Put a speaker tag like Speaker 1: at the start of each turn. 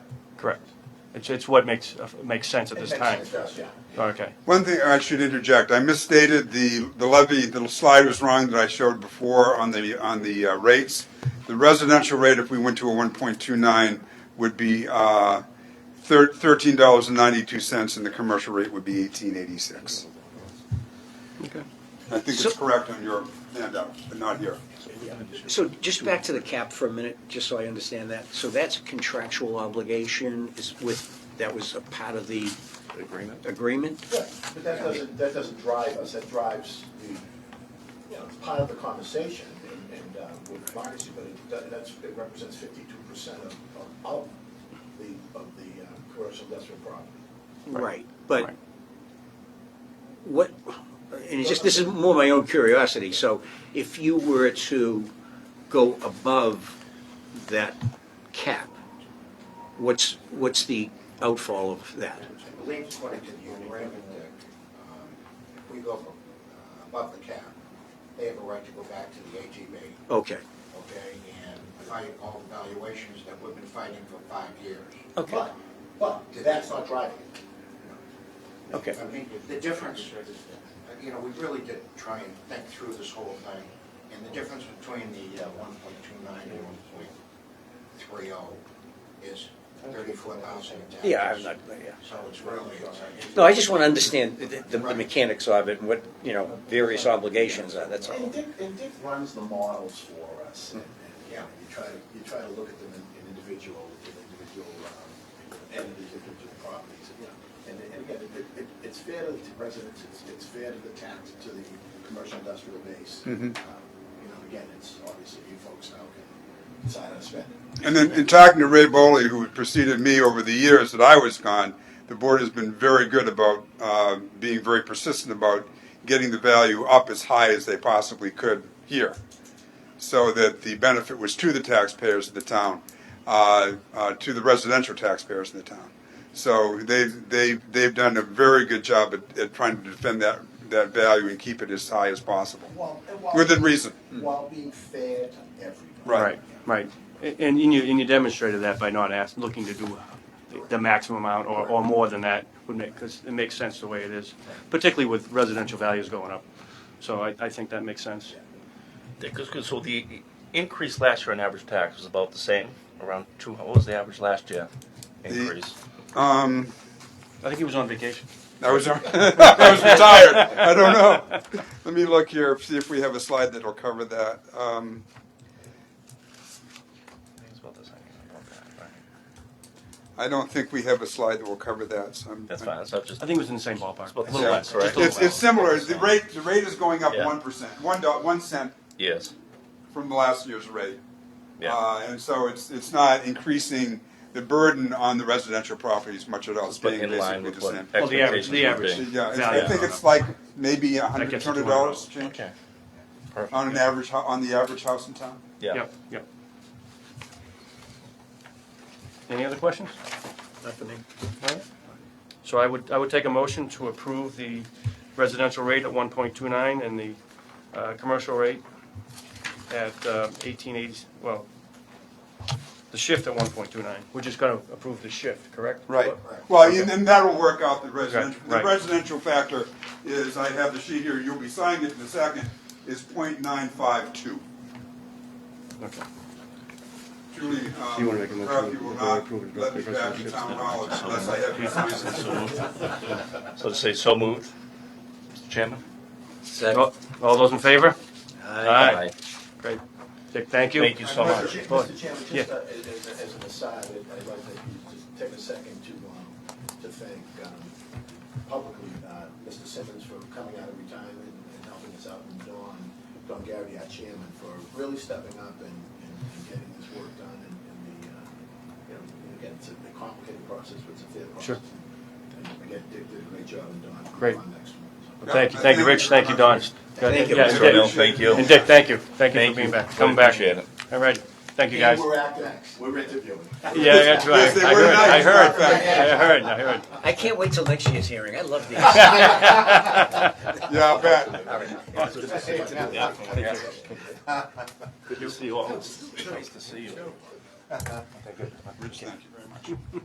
Speaker 1: Correct. It's, it's what makes, makes sense at this time.
Speaker 2: Yeah.
Speaker 1: Okay.
Speaker 3: One thing I should interject, I misstated the, the levy, the slide was wrong that I showed before on the, on the uh, rates. The residential rate, if we went to a one point two nine, would be, uh, thir- thirteen dollars and ninety-two cents, and the commercial rate would be eighteen eighty-six.
Speaker 4: Okay.
Speaker 3: I think
Speaker 4: So-
Speaker 3: it's correct on your handout, but not here.
Speaker 4: So just back to the cap for a minute, just so I understand that. So that's a contractual obligation is with, that was a part of the
Speaker 5: agreement.
Speaker 4: agreement?
Speaker 2: Yeah, but that doesn't, that doesn't drive us, that drives the, you know, it's part of the conversation and, and uh, with democracy, but it, that- that's, it represents fifty-two percent of, of- of the, of the uh, commercial industrial property.
Speaker 4: Right, but
Speaker 1: Right.
Speaker 4: what, and it's just, this is more my own curiosity. So if you were to go above that cap, what's, what's the outfall of that?
Speaker 6: I believe according to the agreement, Dick, um, if we go from, uh, above the cap, they have a right to go back to the AGB,
Speaker 4: Okay,
Speaker 6: okay? And fight all the valuations that we've been fighting for five years.
Speaker 4: okay,
Speaker 2: But, but that's not driving it.
Speaker 4: okay.
Speaker 6: I mean, the difference, uh, you know, we really did try and think through this whole thing. And the difference between the uh, 1.29 and 1.30 is 34,000 in taxes.
Speaker 4: Yeah, I'm not, yeah.
Speaker 6: So it's really, it's
Speaker 4: No, I just want to understand the- the the mechanics of it and what, you know, various obligations are, that's all.
Speaker 2: And Dick, and Dick runs the models for us, and, and, you know, you try to, you try to look at them in, in individual, in individual, um, entities, individual properties, and, you know. And, and again, it, it, it's fair to the residents, it's, it's fair to the tax, to the commercial industrial base. Um, You know, again, it's obviously you folks now can decide how to spend it.
Speaker 3: And then in talking to Ray Boley, who had preceded me over the years that I was gone, the board has been very good about uh, being very persistent about getting the value up as high as they possibly could here, so that the benefit was to the taxpayers of the town, uh, uh, to the residential taxpayers in the town. So they've they've they've done a very good job at, at trying to defend that that value and keep it as high as possible
Speaker 2: While, and while-
Speaker 3: within reason.
Speaker 2: While being fair to everybody.
Speaker 3: Right.
Speaker 1: Right. And, and you, and you demonstrated that by not ask, looking to do the- the maximum amount or, or more than that would make, because it makes sense the way it is, particularly with residential values going up. So I, I think that makes sense.
Speaker 7: Because, so the increase last year on average tax was about the same, around two, what was the average last year increase?
Speaker 3: Um,
Speaker 1: I think he was on vacation.
Speaker 3: I was, I was retired. I don't know. Let me look here, see if we have a slide that'll cover that. Um,
Speaker 7: I think it's about the same, about that, right?
Speaker 3: I don't think we have a slide that will cover that, so I'm.
Speaker 7: That's fine, that's not just,
Speaker 1: I
Speaker 7: it's
Speaker 1: think it was in the same ballpark.
Speaker 7: about a
Speaker 3: Yeah.
Speaker 7: little less, right?
Speaker 3: It's, it's similar. The rate, the rate is going up
Speaker 7: Yeah.
Speaker 3: one percent, one dot, one cent
Speaker 7: Yes,
Speaker 3: from the last year's rate.
Speaker 7: yeah.
Speaker 3: Uh, and so it's, it's not increasing the burden on the residential properties much at all. It's
Speaker 7: But
Speaker 3: being
Speaker 7: in
Speaker 3: basically
Speaker 7: line with
Speaker 3: the
Speaker 7: what
Speaker 3: same.
Speaker 1: Well, the average-
Speaker 7: expectations
Speaker 1: the average.
Speaker 7: would be.
Speaker 3: Yeah, it's- I
Speaker 1: Value.
Speaker 3: think it's like maybe a hundred,
Speaker 1: gets
Speaker 3: two
Speaker 1: you
Speaker 3: hundred
Speaker 1: $200.
Speaker 3: dollars change
Speaker 7: Okay.
Speaker 3: on an
Speaker 7: Perfect,
Speaker 3: average, hou- on the average house in town.
Speaker 7: yeah.
Speaker 1: Yep, yep. Any other questions?
Speaker 4: Nothing.
Speaker 1: So I would, I would take a motion to approve the residential rate at one point two nine and the, uh, commercial rate at, uh, eighteen eighty, well, the shift at one point two nine. We're just gonna approve the shift, correct?
Speaker 3: Right. Well, and and that'll work out the residential. The
Speaker 1: right.
Speaker 3: residential factor is, I have the sheet here, you'll be signing it in a second, is point nine five two.
Speaker 1: Okay.
Speaker 3: Julie,
Speaker 1: you wanna make a motion
Speaker 3: um, Crafty will
Speaker 1: that we
Speaker 3: not
Speaker 1: approve it,
Speaker 3: let me
Speaker 1: the
Speaker 3: back in
Speaker 1: residential
Speaker 3: town hall unless I have your signature.
Speaker 7: So to say, so moved, Mr. Chairman?
Speaker 1: All all those in favor? Oh, Aye.
Speaker 7: Aye.
Speaker 1: Great. Dick, thank you.
Speaker 7: Thank you so much.
Speaker 2: Mr.
Speaker 1: Well,
Speaker 2: Chairman, just
Speaker 1: yeah.
Speaker 2: uh, as, as- as an aside, I'd I'd like to just take a second to, um, to thank, um, publicly, uh, Mr. Simmons for coming out of retirement and helping us out, and Don, Don Garrity, our chairman, for really stepping up and, and and getting this work done, and, and the, uh, you know, again, it's a a complicated process, but it's a fair process.
Speaker 1: Sure.
Speaker 2: And again, Dick did a great job, and Don.
Speaker 1: Great.
Speaker 2: On next one.
Speaker 1: Thank you, thank you, Rich, thank you, Don.
Speaker 4: Thank you.
Speaker 1: Yeah,
Speaker 7: So,
Speaker 1: Dick.
Speaker 7: no, Thank you.
Speaker 1: And Dick, thank you, thank you
Speaker 7: Thank
Speaker 1: for being
Speaker 7: you.
Speaker 1: back,
Speaker 7: Really
Speaker 1: coming back.
Speaker 7: appreciate it.
Speaker 1: All right, thank you, guys.
Speaker 2: And we're acting, we're interviewing.
Speaker 1: Yeah, I got you.
Speaker 3: Yes,
Speaker 1: I,
Speaker 3: they
Speaker 1: I
Speaker 3: were
Speaker 1: heard,
Speaker 3: nice.
Speaker 1: I heard, I
Speaker 3: Perfect.
Speaker 1: heard, I heard.
Speaker 4: I can't wait till next year's hearing, I love these.
Speaker 3: Yeah, I bet.
Speaker 7: Good to see you all. Nice to see you.
Speaker 3: Rich, thank you very much.